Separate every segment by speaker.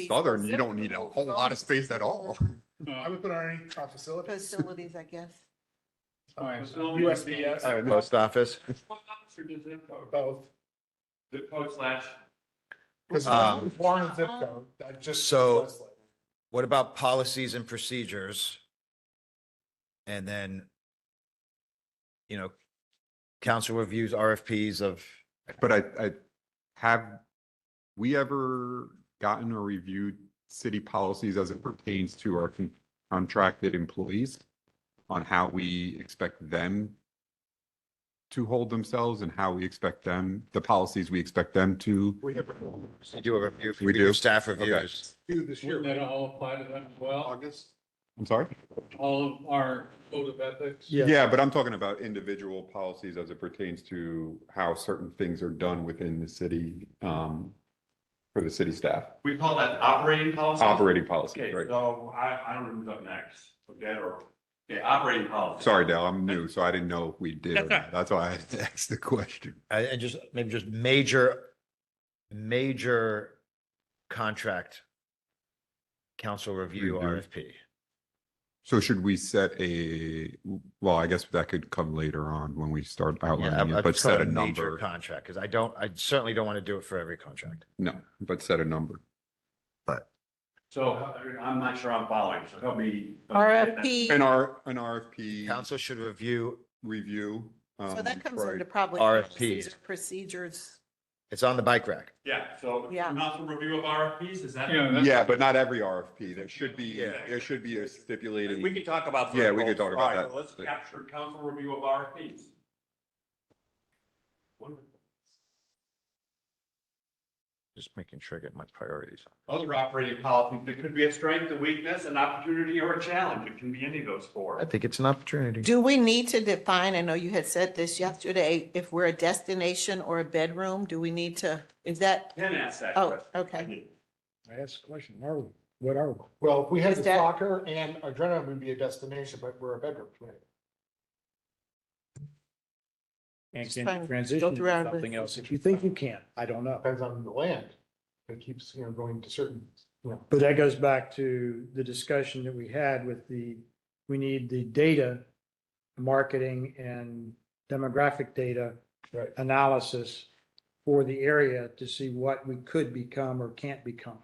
Speaker 1: Southern, you don't need a whole lot of space at all.
Speaker 2: Uh, I would put on any, our facilities.
Speaker 3: Facilities, I guess.
Speaker 2: All right, so USPS.
Speaker 1: All right, Post office.
Speaker 2: Both.
Speaker 4: The post slash.
Speaker 2: Because
Speaker 1: Um,
Speaker 2: Warren zip
Speaker 3: Uh-huh.
Speaker 2: code, that just.
Speaker 5: So- What about policies and procedures? And then, you know, council reviews RFPs of,
Speaker 1: But I, I, have we ever gotten or reviewed city policies as it pertains to our con- contracted employees? On how we expect them to hold themselves and how we expect them, the policies we expect them to?
Speaker 2: We have
Speaker 5: you do a review.
Speaker 1: We do.
Speaker 5: Staff
Speaker 1: Okay.
Speaker 5: reviews.
Speaker 2: two this
Speaker 4: Wouldn't
Speaker 2: year,
Speaker 4: that all apply to them as well?
Speaker 2: August.
Speaker 1: I'm sorry?
Speaker 4: All of our code of ethics?
Speaker 1: Yeah, but I'm talking about individual policies as it pertains to how certain things are done within the city, um, for the city staff,
Speaker 4: We call that operating policy?
Speaker 1: operating policy,
Speaker 4: Okay,
Speaker 1: right?
Speaker 4: so I, I don't know who's up next, okay, or, okay, operating policy.
Speaker 1: Sorry, Dale, I'm new, so I didn't know if we did. or not. That's why I asked the question.
Speaker 5: And Uh, and just, maybe just major, major contract council review
Speaker 1: Review.
Speaker 5: RFP.
Speaker 1: So should we set a, well, I guess that could come later on when we start
Speaker 5: Yeah,
Speaker 1: outlining
Speaker 5: I- I
Speaker 1: it, but
Speaker 5: just call
Speaker 1: set a
Speaker 5: it major
Speaker 1: number.
Speaker 5: Contract, because I don't, I certainly don't want to do it for every contract.
Speaker 1: No, but set a number.
Speaker 4: So I'm not sure I'm following, so help me.
Speaker 1: An
Speaker 3: RFP,
Speaker 1: R, an RFP
Speaker 5: Council should review,
Speaker 1: review.
Speaker 3: so
Speaker 1: um,
Speaker 3: that comes
Speaker 1: right.
Speaker 3: under probably.
Speaker 5: RFPs.
Speaker 3: procedure- Procedures.
Speaker 5: it's on the bike rack.
Speaker 4: Yeah, so
Speaker 3: Yeah.
Speaker 4: council review of RFPs, is that?
Speaker 1: Yeah, but not every RFP. There should be, yeah, there should be a stipulated.
Speaker 4: could talk about.
Speaker 1: Yeah, we could talk about
Speaker 4: All right,
Speaker 1: that.
Speaker 4: Let's capture council review of RFPs.
Speaker 5: Just making sure I get my priorities.
Speaker 4: Other operating policies, it could be a strength, a weakness, an opportunity, or a challenge. It can be any of those
Speaker 5: I
Speaker 4: four.
Speaker 5: think it's an opportunity.
Speaker 3: Do we need to define, I know you had said this yesterday, if we're a destination or a bedroom, do we need to, is that,
Speaker 4: Then ask that
Speaker 3: oh,
Speaker 4: question.
Speaker 3: okay.
Speaker 6: I asked the question, are we, what are we?
Speaker 2: Well, if we had
Speaker 3: Is
Speaker 2: the
Speaker 3: that-
Speaker 2: soccer and adrenaline would be a destination, but we're a bedroom. right?
Speaker 6: And
Speaker 3: Just
Speaker 6: can
Speaker 3: trying
Speaker 6: you
Speaker 3: to
Speaker 6: transition
Speaker 3: filter
Speaker 6: to
Speaker 3: out the-
Speaker 6: something else if you think you can? I don't know.
Speaker 2: Depends on the land. It keeps, you know, going to certain, you know.
Speaker 6: But that goes back to the discussion that we had with the, we need the data, marketing and demographic data
Speaker 2: Right.
Speaker 6: analysis for the area to see what we could become or can't become.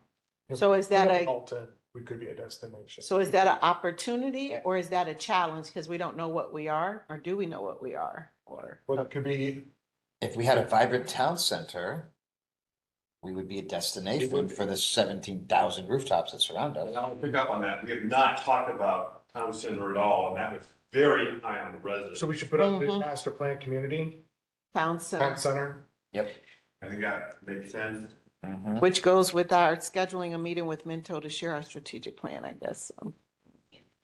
Speaker 3: So is that a-
Speaker 2: Alton, we could be a destination.
Speaker 3: So is that an opportunity or is that a challenge? Because we don't know what we are, or do we know what we are? Or,
Speaker 2: Well, it could be,
Speaker 7: If we had a vibrant town center, we would be a destination for the seventeen thousand rooftops that surround us.
Speaker 4: I'll pick up on that. We have not talked about town center at all, and that was very high on the resident.
Speaker 2: so we should put up the
Speaker 3: Mhm.
Speaker 2: master plan community,
Speaker 3: town
Speaker 2: town
Speaker 3: center,
Speaker 2: center.
Speaker 4: I think that makes sense.
Speaker 7: Mhm.
Speaker 3: which goes with our scheduling a meeting with Minto to share our strategic plan, I guess. um,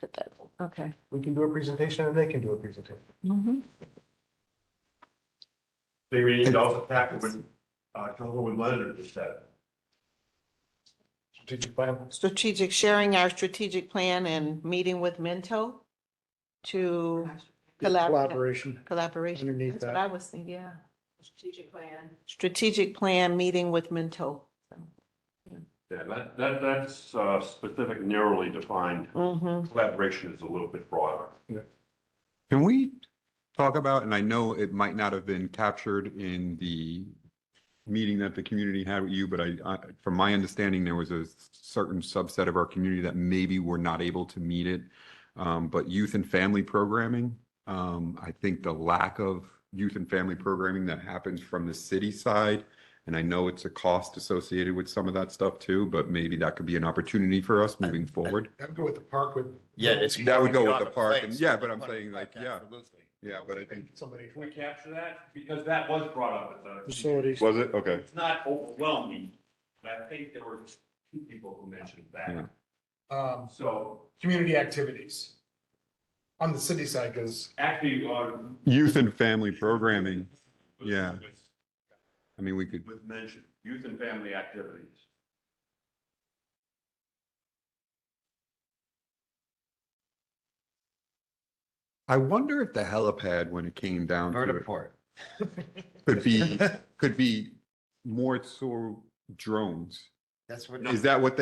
Speaker 3: Put that, okay.
Speaker 2: We can do a presentation and they can do a presentation.
Speaker 3: Mhm.
Speaker 4: They we need to also tackle what, uh, Councilwoman Leonard just said.
Speaker 2: Strategic plan.
Speaker 3: Strategic, sharing our strategic plan and meeting with Minto to collaborate,
Speaker 6: Collaboration
Speaker 3: collaboration.
Speaker 6: underneath
Speaker 3: That's what
Speaker 6: that.
Speaker 3: I was thinking, yeah. Strategic plan. Strategic plan, meeting with Minto.
Speaker 4: Yeah, that, that, that's, uh, specific narrowly defined.
Speaker 3: Mm-hmm.
Speaker 4: Collaboration is a little bit broader.
Speaker 1: Can we talk about, and I know it might not have been captured in the meeting that the community had with you, but I, I- from my understanding, there was a certain subset of our community that maybe were not able to meet it. Um, But youth and family programming, um, I think the lack of youth and family programming that happens from the city side, and I know it's a cost associated with some of that stuff too, but maybe that could be an opportunity for us moving forward.
Speaker 2: I'd go with the park with.
Speaker 5: Yeah, it's.
Speaker 1: That would go
Speaker 5: You're
Speaker 1: with
Speaker 5: on
Speaker 1: the park,
Speaker 5: plane,
Speaker 1: and-
Speaker 5: so
Speaker 1: yeah,
Speaker 5: you're
Speaker 1: but I'm
Speaker 5: on the
Speaker 1: saying, like,
Speaker 5: bike,
Speaker 1: yeah.
Speaker 5: absolutely.
Speaker 1: Yeah, but I think,
Speaker 2: Somebody.
Speaker 4: Can we capture that? Because that was brought up at the.
Speaker 6: Facilities.
Speaker 1: was it? Okay.
Speaker 4: It's not overwhelming, but I think there were two people who mentioned
Speaker 1: Yeah.
Speaker 4: that.
Speaker 2: Um,
Speaker 4: So
Speaker 2: community activities. On the city side, because
Speaker 4: actually, uh, on.
Speaker 1: Youth and family programming. Yeah. I mean, we could,
Speaker 4: Was mentioned, youth and family activities.
Speaker 1: I wonder if the helipad, when it came down to it,
Speaker 5: Vertiport.
Speaker 1: could be, could be more so drones.
Speaker 7: That's what.
Speaker 1: Is that what they